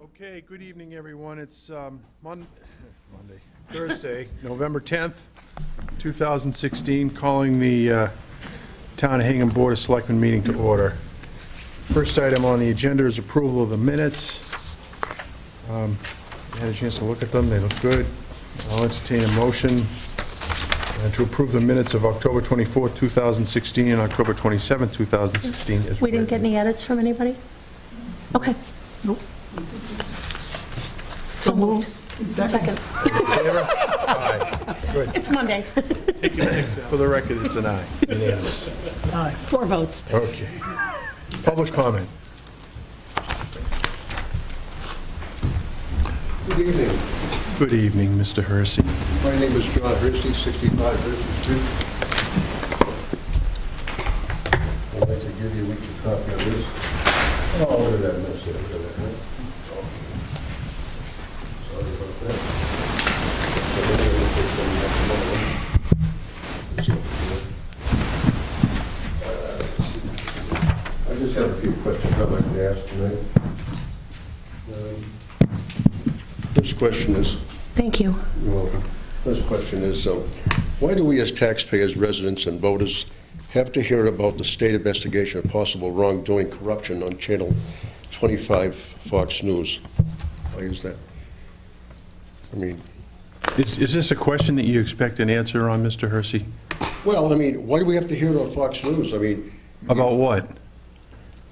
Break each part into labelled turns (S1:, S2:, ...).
S1: Okay, good evening, everyone. It's um, Mon- Monday, Thursday, November 10th, 2016, calling the uh, Town of Hingham Board of Selectmen meeting to order. First item on the agenda is approval of the minutes. Um, I Had a chance to look at them, they look good. I'll entertain a motion uh, to approve the minutes of October 24th, 2016, and October 27th, 2016. as
S2: We didn't get
S1: written.
S2: any edits from anybody? Okay. So moved. Second.
S1: Favor? Aye. Good.
S2: It's Monday.
S1: For the record, it's an aye. Unanimous.
S2: Four votes.
S1: Okay. Public comment.
S3: Good evening.
S1: Good evening, Mr. Hersey.
S3: My name is John Hershey, 65 Hershey Street. I'd like to give you a weekly copy of this. Oh, look at that mess there, look at that, huh? Sorry about that. So maybe I'll just take one back tomorrow. Let's see what we got. Uh, I just have a few questions I'd like to ask tonight. Um, First question is,
S2: Thank you.
S3: you're welcome. First question is, um, why do we as taxpayers, residents, and voters have to hear about the state investigation of possible wrongdoing corruption on Channel 25 Fox News? Why is that? I mean,
S1: Is is this a question that you expect an answer on, Mr. Hersey?
S3: well, I mean, why do we have to hear it on Fox News? I mean,
S1: About what?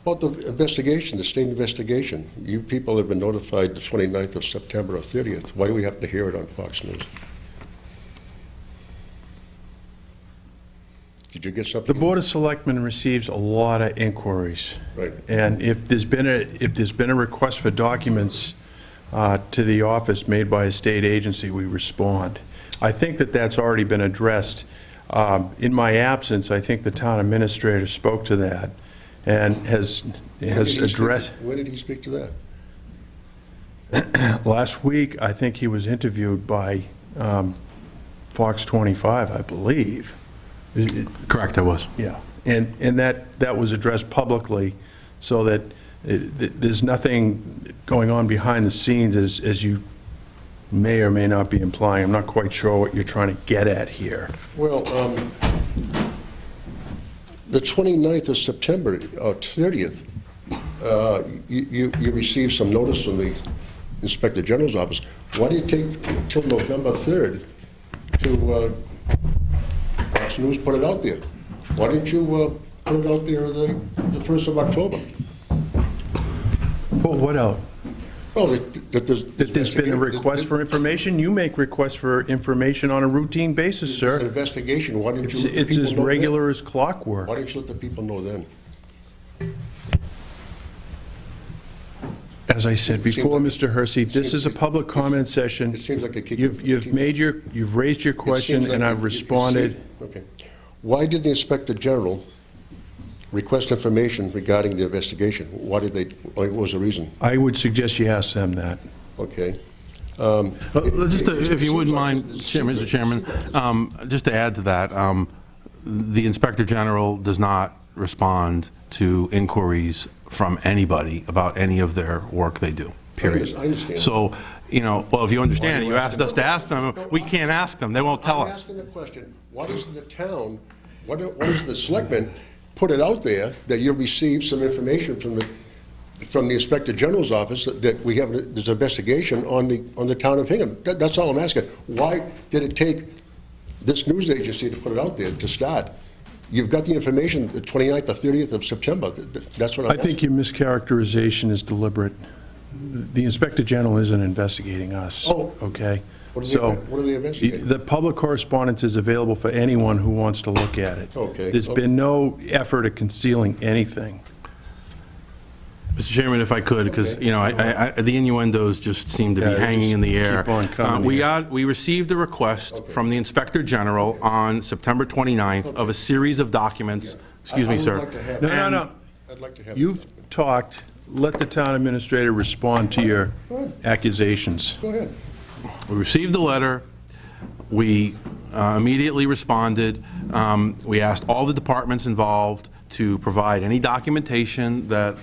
S3: about the investigation, the state investigation. You people have been notified the 29th of September or 30th. Why do we have to hear it on Fox News? Did you get
S1: The
S3: something?
S1: Board of Selectmen receives a lot of inquiries.
S3: Right.
S1: And if there's been a, if there's been a request for documents uh, to the office made by a state agency, we respond. I think that that's already been addressed. Um, In my absence, I think the town administrator spoke to that and has,
S3: When did
S1: has
S3: he speak to-
S1: addressed.
S3: When did he speak to that?
S1: Last week, I think he was interviewed by um, Fox 25, I believe. Is it-
S4: Correct, I was.
S1: Yeah. And, and that, that was addressed publicly, so that it- th- there's nothing going on behind the scenes, as, as you may or may not be implying. I'm not quite sure what you're trying to get at here.
S3: Well, um, the 29th of September, or 30th, uh, you you you received some notice from the Inspector General's office. Why did it take till November 3rd to, uh, Fox News put it out there? Why didn't you uh, put it out there the the 1st of October?
S1: Well, what else?
S3: Well, that that there's...
S1: That there's been a request for information? You make requests for information on a routine basis,
S3: An
S1: sir.
S3: investigation, why didn't you
S1: It's,
S3: let the
S1: it's
S3: people
S1: as
S3: know then?
S1: regular as clockwork.
S3: Why didn't you let the people know then?
S1: As I said before,
S3: like-
S1: Mr. Hersey, this is a public comment session.
S3: It seems like you keep-
S1: You've, you've
S3: keep-
S1: made your, you've raised your
S3: It
S1: question,
S3: seems
S1: and
S3: like
S1: I've
S3: you- you- you
S1: responded.
S3: see- Okay. Why did the Inspector General request information regarding the investigation? Why did they, what was the reason?
S1: I would suggest you ask them that.
S3: Okay.
S4: Uh, Just, to- if you wouldn't
S3: It- it-
S4: mind,
S3: it-
S4: Chair- Mr. Chairman, um, just to add to that, um, the Inspector General does not respond to inquiries from anybody about any of their work they do, period.
S3: I understand.
S4: So, you know, well, if you understand, you asked us to ask them, we can't ask them, they won't tell
S3: I'm
S4: us.
S3: asking the question, why doesn't the town, why don't, why does the selectmen put it out there that you received some information from the, from the Inspector General's office that- that we have, this investigation on the, on the town of Hingham? That, that's all I'm asking. Why did it take this news agency to put it out there to start? You've got the information, the 29th, the 30th of September. Th- th- That's what I'm
S1: I
S3: asking.
S1: think your mischaracterization is deliberate. The Inspector General isn't investigating us,
S3: Oh.
S1: okay?
S3: What are they-
S1: So,
S3: what are they investigating?
S1: The public correspondence is available for anyone who wants to look at it.
S3: Okay.
S1: There's been no effort at concealing anything.
S4: Mr. Chairman, if I could, because,
S3: Okay.
S4: you know, I- I- I- the innuendos just seem to
S1: Yeah,
S4: be
S1: they
S4: hanging in the
S1: just
S4: air.
S1: keep on coming
S4: Uh, We
S1: here.
S4: got, we received a request from the Inspector General on September 29th of a series of documents, excuse
S3: I
S4: me,
S3: would
S4: sir.
S3: like to have-
S1: No, no,
S4: And-
S1: no.
S3: I'd like to have.
S1: You've talked, let the town administrator respond to your accusations.
S3: Go ahead.
S4: We received the letter, we uh, immediately responded, Um, we asked all the departments involved to provide any documentation that